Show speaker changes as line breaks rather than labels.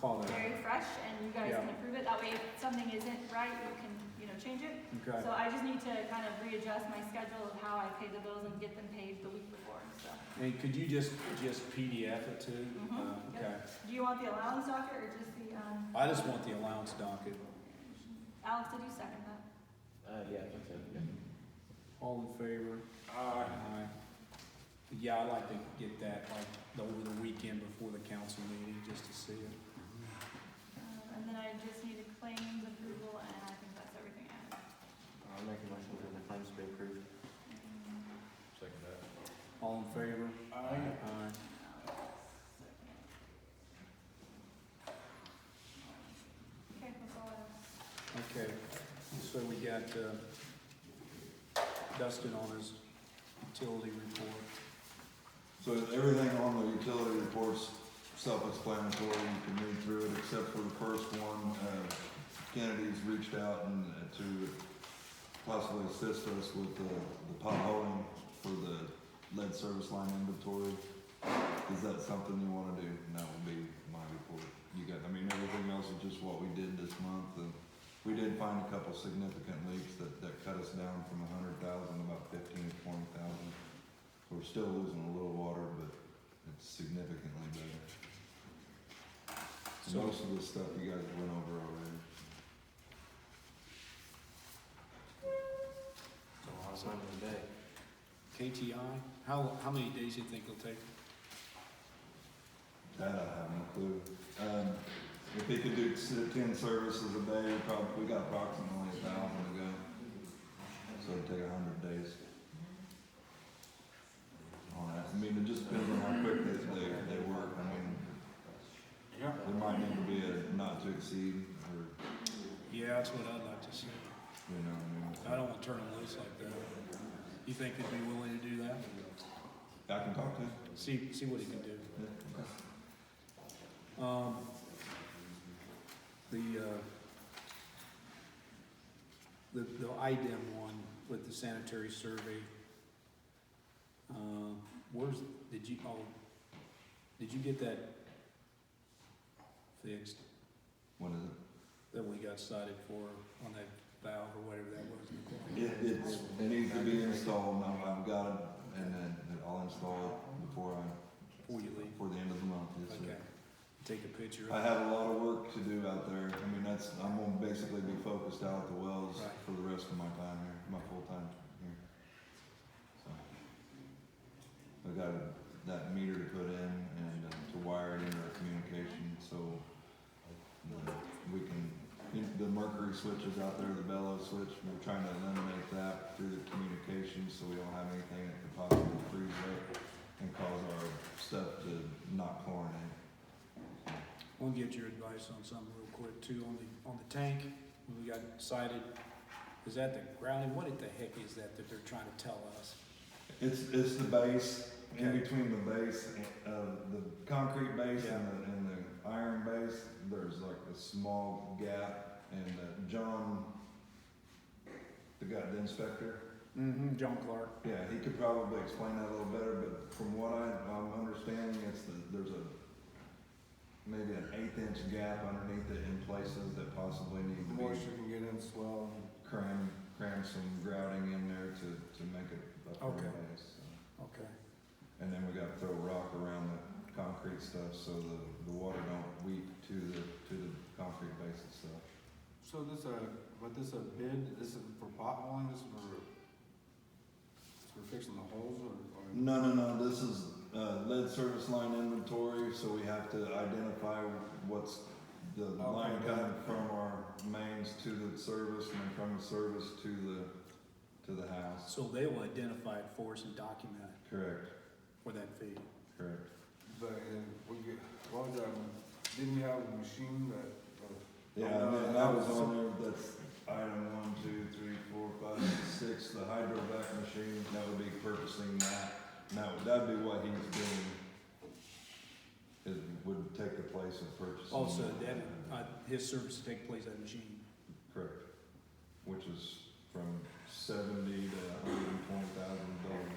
follow that.
very fresh, and you guys
Yeah.
can approve it, that way if something isn't right, you can, you know, change it.
Okay,
So I just need to kind of readjust my schedule of how I pay the bills and get them paid the week before, so.
and could you just, just PDF it too?
Mhm,
Uh,
yep.
Okay,
Do you want the allowance docket or just the, um?
I just want the allowance docket.
Alex, did you second that?
Uh, yeah, I think so, yeah.
All in favor?
Alright.
Aye. Yeah, I'd like to get that like over the weekend before the council meeting, just to see it.
Um, and then I just need a claims approval, and I think that's everything I have.
I'll make a motion for the claims to be approved.
Um,
Second that.
All in favor?
Aye.
Aye.
Okay, that's all I have.
Okay, so we got uh, Dustin on his utility report.
So everything on the utility report's self-explanatory, you can read through it, except for the first one, uh, Kennedy's reached out and uh, to possibly assist us with the, the potholing for the lead service line inventory. Is that something you wanna do? And that would be my report. You got, I mean, everything else is just what we did this month, and we did find a couple significant leaks that, that cut us down from a hundred thousand, about fifteen to twenty thousand. We're still losing a little water, but it's significantly better.
So-
Most of the stuff you guys went over already.
So I'll sign it today.
KTI, how, how many days you think it'll take?
That I have no clue. Um, if they could do s- ten services a day, we probably, we got approximately a thousand to go. So it'd take a hundred days. On that, I mean, it just depends on how quick they, they, they work, I mean,
Yeah.
there might need to be a not to exceed, or,
Yeah, that's what I'd like to see.
you know, I mean.
I don't want to turn them loose like that. You think they'd be willing to do that?
I can talk to him.
See, see what he can do.
Yeah, okay.
Um, the, uh, the, the IDEM one with the sanitary survey, uh, where's, did you, oh, did you get that fixed,
What is it?
that we got cited for on that valve or whatever that was?
It, it's, it needs to be installed, and I've, I've got it, and then I'll install it before I,
Before you leave,
before the end of the month, yes, sir.
okay, take a picture of
I
it,
have a lot of work to do out there. I mean, that's, I'm gonna basically be focused out at the wells
Right.
for the rest of my time here, my full time here. So. I got that meter to put in and uh, to wire it into our communication, so the- we can, you know, the mercury switches out there, the bellow switch, we're trying to eliminate that through the communication, so we don't have anything that could possibly freeze up and cause our stuff to not chlorinate.
we'll get your advice on something real quick too, on the, on the tank, we got cited, is that the grounding, what the heck is that that they're trying to tell us?
It's, it's the base,
Okay.
in between the base, uh, the concrete base and the, and the iron base, there's like a small gap. And uh, John, the guy, the inspector,
Mm-hmm, John Clark.
yeah, he could probably explain that a little better, but from what I, I'm understanding, it's the, there's a, maybe an eighth inch gap underneath it in places that possibly need to be.
Moisture can get in, swell,
Cram, cram some grouting in there to, to make it a firm
Okay.
base, so.
Okay.
And then we gotta throw rock around the concrete stuff so the, the water don't weep to the, to the concrete base and stuff.
so this a, but this a bid, this is for potholing, this is for, for fixing the holes or? or-
No, no, no, this is, uh, lead service line inventory, so we have to identify what's the line
Okay.
coming from our mains to the service and then from the service to the, to the house.
So they will identify it for us and document it
Correct,
for that fee.
correct.
But, uh, we get, what was that, didn't we have a machine that, or?
Yeah,
Oh,
and
no,
then
that
that was
was-
on there, that's item one, two, three, four, five, six, the hydrovac machine, that would be purchasing that. Now, that'd be what he's doing, is, would take the place of purchasing.
Also, that,
that.
uh, his service to take place at machine.
Correct, which is from seventy to hundred and twenty thousand dollars.